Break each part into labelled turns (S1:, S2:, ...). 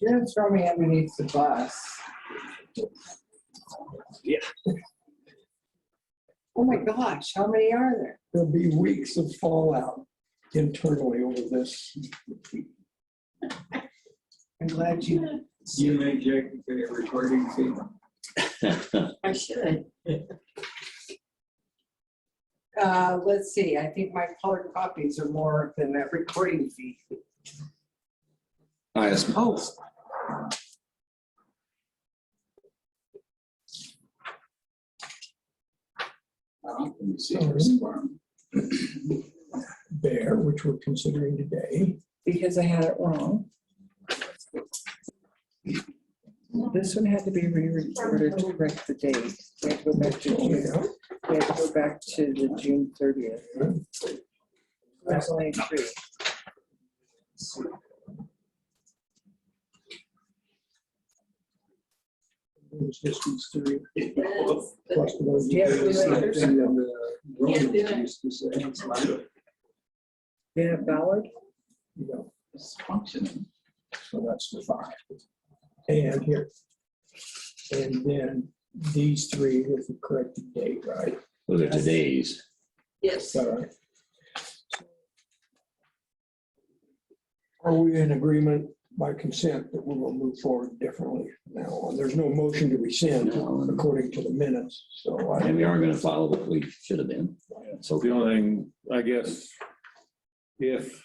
S1: Didn't throw me underneath the bus.
S2: Yeah.
S1: Oh my gosh, how many are there?
S3: There'll be weeks of fallout internally over this.
S1: I'm glad you,
S4: You may check the recording fee.
S5: I should.
S1: uh, let's see, I think my colored copies are more than that recording fee.
S2: I
S1: Oh,
S2: suppose.
S4: Let me see this form.
S3: Bear, which we're considering today.
S6: because I had it wrong. This one had to be re-recorded to correct the date. We had to go back to
S3: Oh,
S6: June, we had to go back to the June thirtieth. That's only three.
S3: There's this mystery.
S5: That's-
S3: plus the ones
S6: Yeah, we
S3: that-
S6: were-
S3: and then the- uh,
S5: Can't do it.
S4: Used to say it's like
S6: Yeah, Ballard,
S3: you know,
S4: It's functioning.
S3: So that's the five. And here. And then these three with the corrected date, right?
S2: Those are today's.
S5: Yes,
S3: All right. Are we in agreement by consent that we will move forward differently now on? There's no motion to rescind
S2: No.
S3: according to the minutes, so I.
S2: And we are gonna follow what we should have been. So
S7: The only thing, I guess, if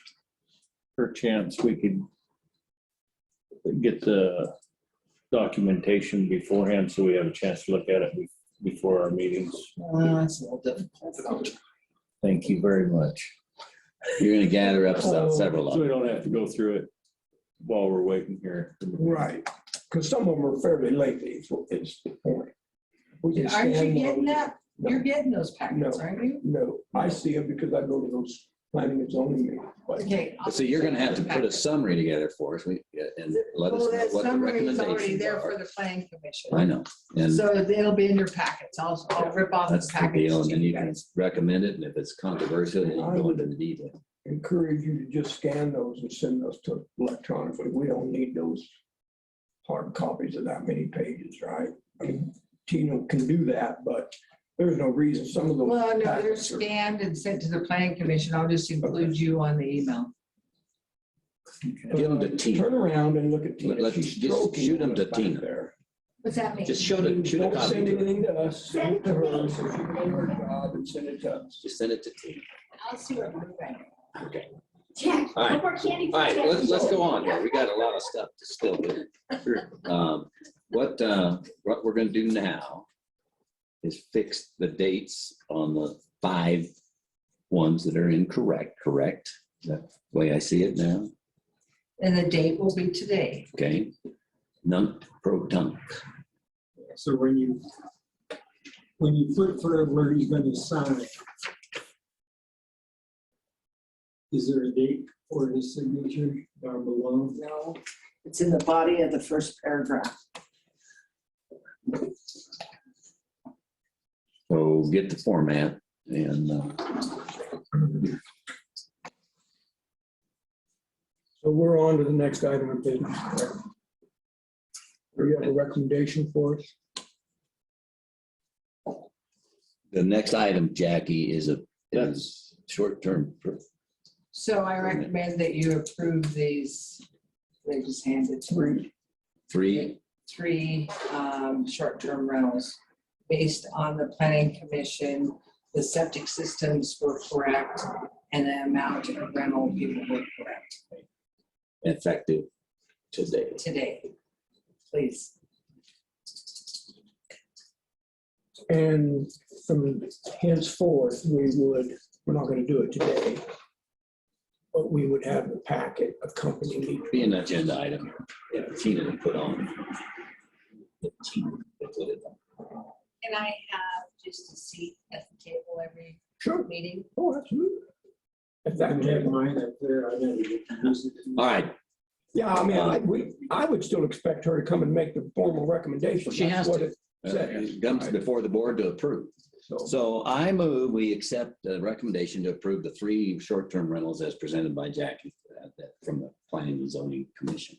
S7: perchance we could get the documentation beforehand, so we have a chance to look at it be- before our meetings.
S2: Uh,
S1: That's a little difficult.
S7: Thank you very much. uh,
S2: you're gonna gather up se-
S1: Oh.
S2: several of
S7: So we
S2: them.
S7: don't have to go through it while we're waiting here.
S3: Right, because some of them are fairly lengthy, is what- is the point. We can
S1: Aren't you
S3: stand
S1: getting
S3: those.
S1: that? You're getting those packets,
S3: No.
S1: aren't you?
S3: No, I see them because I go to those planning and zoning meetings, but
S1: Okay. I'll-
S2: So you're gonna have to put a summary together for us we- and let
S1: Well,
S2: us know
S1: that
S2: what the
S1: summary is already
S2: recommendations
S1: there for
S2: are.
S1: the planning commission.
S2: I know. And
S1: So it'll be in your packets. I'll, I'll rip off the
S2: that's the
S1: package.
S2: deal. And
S1: to
S2: then you
S1: you
S2: can
S1: guys.
S2: recommend it. And if it's controversial, then you go into the detail.
S3: encourage you to just scan those and send those to electronically. We don't need those hard copies of that many pages, right? I mean, Tino can do that, but there's no reason some of those.
S1: Well, no, they're
S3: packets are-
S1: scanned and sent to the planning commission. I'll just include you on the email.
S2: Give them to Tina.
S3: Turn around and look at Tina.
S2: Let-
S3: She's
S2: just
S3: stroking
S2: shoot 'em to
S3: us back
S2: Tina.
S3: there.
S5: what's that mean?
S2: Just shoot a, shoot a
S3: Don't
S2: copy.
S3: send
S2: to her.
S3: anything to us, send it to her, so she can do her job and send it to us.
S2: Just send it to Tina.
S5: I'll see what I'm doing.
S2: Okay.
S5: Yeah,
S2: All right.
S5: no more candy.
S2: All right, let's, let's go on here. We got a lot of stuff to still do. Um, What, uh, what we're gonna do now is fix the dates on the five ones that are incorrect, correct? Is that the way I see it now?
S1: And the date will be today.
S2: Okay? Nunc pro tunc.
S4: So when you, when you put for where he's gonna sign, is there a date for his signature down below?
S5: No, it's in the body of the first paragraph.
S2: So get the format and, uh,
S3: So we're on to the next item of business. correct? Do you have a recommendation for us?
S2: the next item, Jackie, is a, is
S7: That's,
S2: short-term. per-
S1: So I recommend that you approve these. They just handed to me.
S2: Three,
S1: three um, short-term rentals based on the planning commission, the septic systems were correct, and the amount of rental people were correct
S2: effective today.
S1: today. Please.
S3: And from henceforth, we would, we're not gonna do it today. But we would have the packet accompanying each
S2: be an agenda item. Yeah, Tina to put on. Tina to put it on.
S5: Can I have just a seat at the table every
S3: Sure.
S5: meeting?
S3: Oh, absolutely. If
S4: I
S3: that
S4: have
S3: can-
S4: mine up there. I never get to use it.
S2: All right,
S3: Yeah, I mean, I, we, I would still expect her to come and make the formal recommendation.
S2: She has
S3: That's what
S2: to.
S3: it-
S2: uh, it comes before the board to approve.
S3: So,
S2: So I move, we accept the recommendation to approve the three short-term rentals as presented by Jackie uh, that- from the Planning and Zoning Commission.